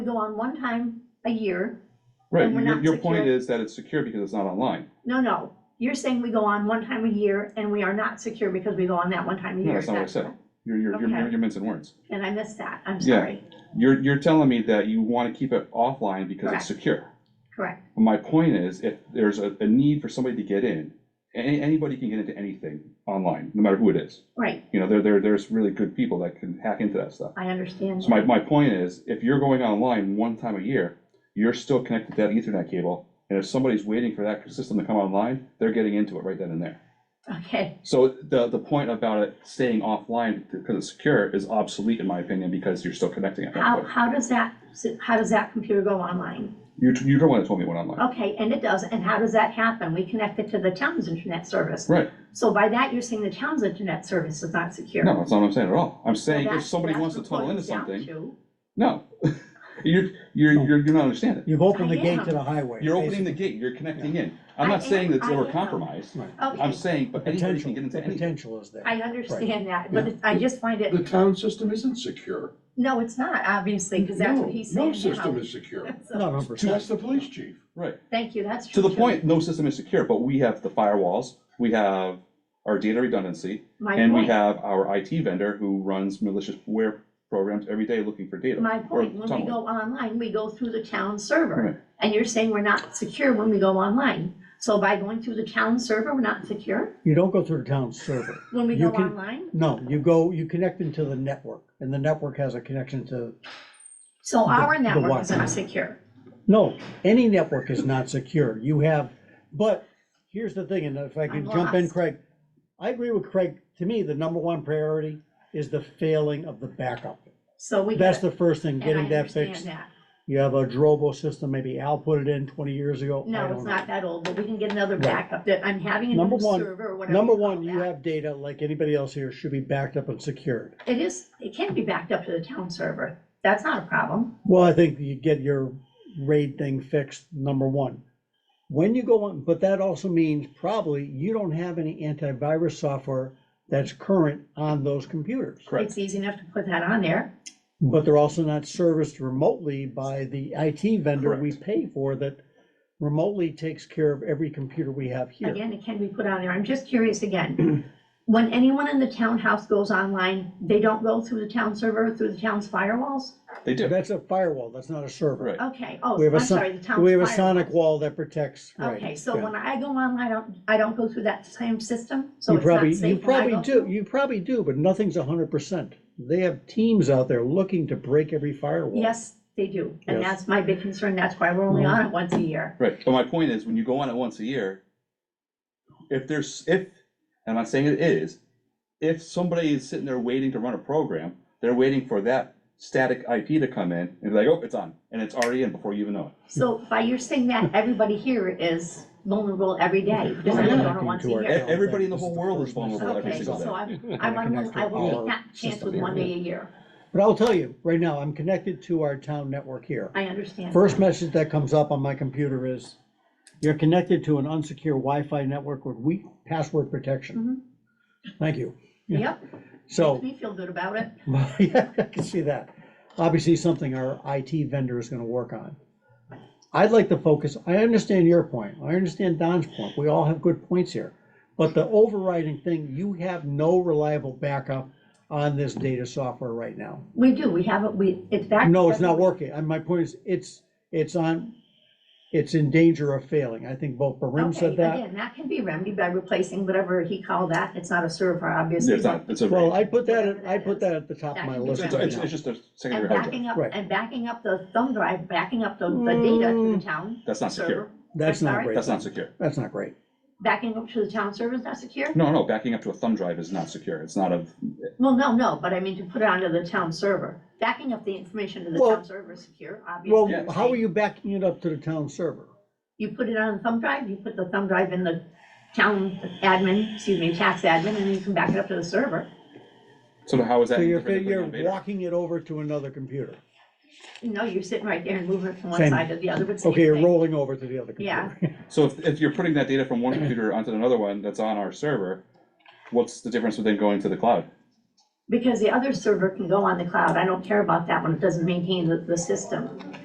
go on one time a year. Right, And we're your, not your point secure. is that it's secure because it's not online. No, no, you're saying we go on one time a year and we are not secure because we go on that one time a year. No, that's not what I said. You're, you're, you're- you're, Okay. you're mincing words. And I missed that, I'm Yeah. sorry. You're, you're telling me that you want to keep it offline because Correct. it's secure. Correct, My point is, if there's a, a need for somebody to get in, any, anybody can get into anything online, no matter who it is. right, You know, there, there, there's really good people that can hack into that stuff. I understand. So my, my point is, if you're going online one time a year, you're still connected to that ethernet cable. And if somebody's waiting for that system to come online, they're getting into it right then and there. that. Okay, So the, the point about it staying offline because it's secure is obsolete in my opinion, because you're still connecting at that how, point. how does that, how does that computer go online? You, you're the one that told me it went online. Okay, and it does, and how does that happen? We connect it to the town's internet service. Right, So by that, you're saying the town's internet service is not secure. no, that's not what I'm saying at all. I'm saying if That's- somebody that's wants to what it tunnel into boils down something, to. no. You're, you're, you're, you're not understanding. You've opened the I gate to am. the highway. You're opening the gate, you're connecting in. I'm I not saying am- that they I were am. compromised. basically. Right. I'm Okay, saying, but The anybody can potential, get the into anything. potential is there. I understand that, but Yeah. it- I just find The it, town system isn't secure. no, it's not, obviously, because that's No, what he's No saying system now. is secure. So, Not a hundred That's percent. the police chief. Right, Thank you, that's to true. the too. point, no system is secure, but we have the firewalls, we have our data redundancy. My And we point. have our IT vendor who runs malicious ware programs every day looking for data. My or point, when we tunneling. go online, we go through the town Right. server, and you're saying we're not secure when we go online. So by going through the town server, we're not secure You don't go through the town server. when we You go can- online? No, you go, you connect into the network and the network has a connection to, So our the network what? is not secure. no, any network is not secure. You have, but here's the thing, and if I I'm can jump in, lost. Craig. I agree with Craig. To me, the number one priority is the failing of the backup. So we. That's get the it, first thing, and I getting that understand fixed. that. You have a Drobo system, maybe Al put it in twenty years ago. I No, don't it's know. not that old, but we can get another Right. backup that I'm having a Number new one- server or whatever. Number call one, you that. have data like anybody else here should be backed up and secured. It is, it can be backed up to the town server. That's not a problem. Well, I think you get your RAID thing fixed, number one. When you go on, but that also means probably you don't have any antivirus software that's current on those computers. Correct. It's easy enough to put that on there. But they're also not serviced remotely by the IT vendor we Correct. pay for that remotely takes care of every computer we have here. Again, it can be put on there. I'm just curious again. When anyone in the townhouse goes online, they don't go through the town server, through the town's firewalls? They do, That's a firewall, that's not a server. right. Okay, oh, We have a I'm son- sorry, the town's firewall. We have a sonic wall that protects, right. Okay, so yeah. when I go online, I don't, I don't go through that same system? So You it's not probably, safe you when I probably go do, through? you probably do, but nothing's a hundred percent. They have teams out there looking to break every firewall. Yes, they do. And Yes. Mm-hmm. that's my big concern. That's why we're only on it once a year. Right, but my point is, when you go on it once a year, if there's, if, and I'm not saying it is, if somebody is sitting there waiting to run a program, they're waiting for that static IP to come in and be like, oh, it's on, and it's already in before you even know it. So by your saying that, everybody here is vulnerable every day, because I We're only go to connecting once a to our- E- year. Yeah. Everybody in the This is whole the world is first message. vulnerable every Okay, single so day. I'm, I want, connect I to will our take that chance system with here. one day a year. But I'll tell you, right now, I'm connected to our town network here. I understand. First message that comes up on my computer is, you're connected to an unsecure Wi-Fi network with weak password protection. Mm-hmm. Thank you. Yep, makes So, me feel good about it. yeah, I can see that. Obviously, something our IT vendor is gonna work on. I'd like to focus, I understand your point, I understand Don's point, we all have good points here. But the overriding thing, you have no reliable backup on this data software right now. We do, we have, it. we, it's back. No, it's not working, and my point is, it's, it's on, it's in danger of failing, I think both Barim Okay, said that. again, that can be remedied by replacing whatever he called that. It's not a server, obviously. It's not, it's a, Well, it's, I put that, at- I put that at the top of my list That can it's- be right it's now. it's just a secondary And hard drive, backing up, Right. and backing up the thumb drive, backing up the, the data to the Mm. town. That's not secure. server. That's not Sorry? great, that's not secure. that's not great. Backing up to the town server is not secure? No, no, backing up to a thumb drive is not secure, it's not a, Well, no, no, but I mean to put it onto the town server. Backing up the information to the Well- town server is secure, Well, obviously. how are you backing it up to the town server? You put it on a thumb drive, you put the thumb drive in the town admin, excuse me, tax admin, and you can back it up to the server. so how is that? So any you're, different than putting you're on Vader? walking it over to another computer. No, you're sitting right there and moving it from one Mm. Same. side to the other, but same Okay, you're thing. rolling over to the other computer. Yeah. So if, if you're putting that data from one computer onto another one that's on our server, what's the difference with it going to the cloud? Because the other server can go on the cloud. I don't care about that one. It doesn't maintain the, the system.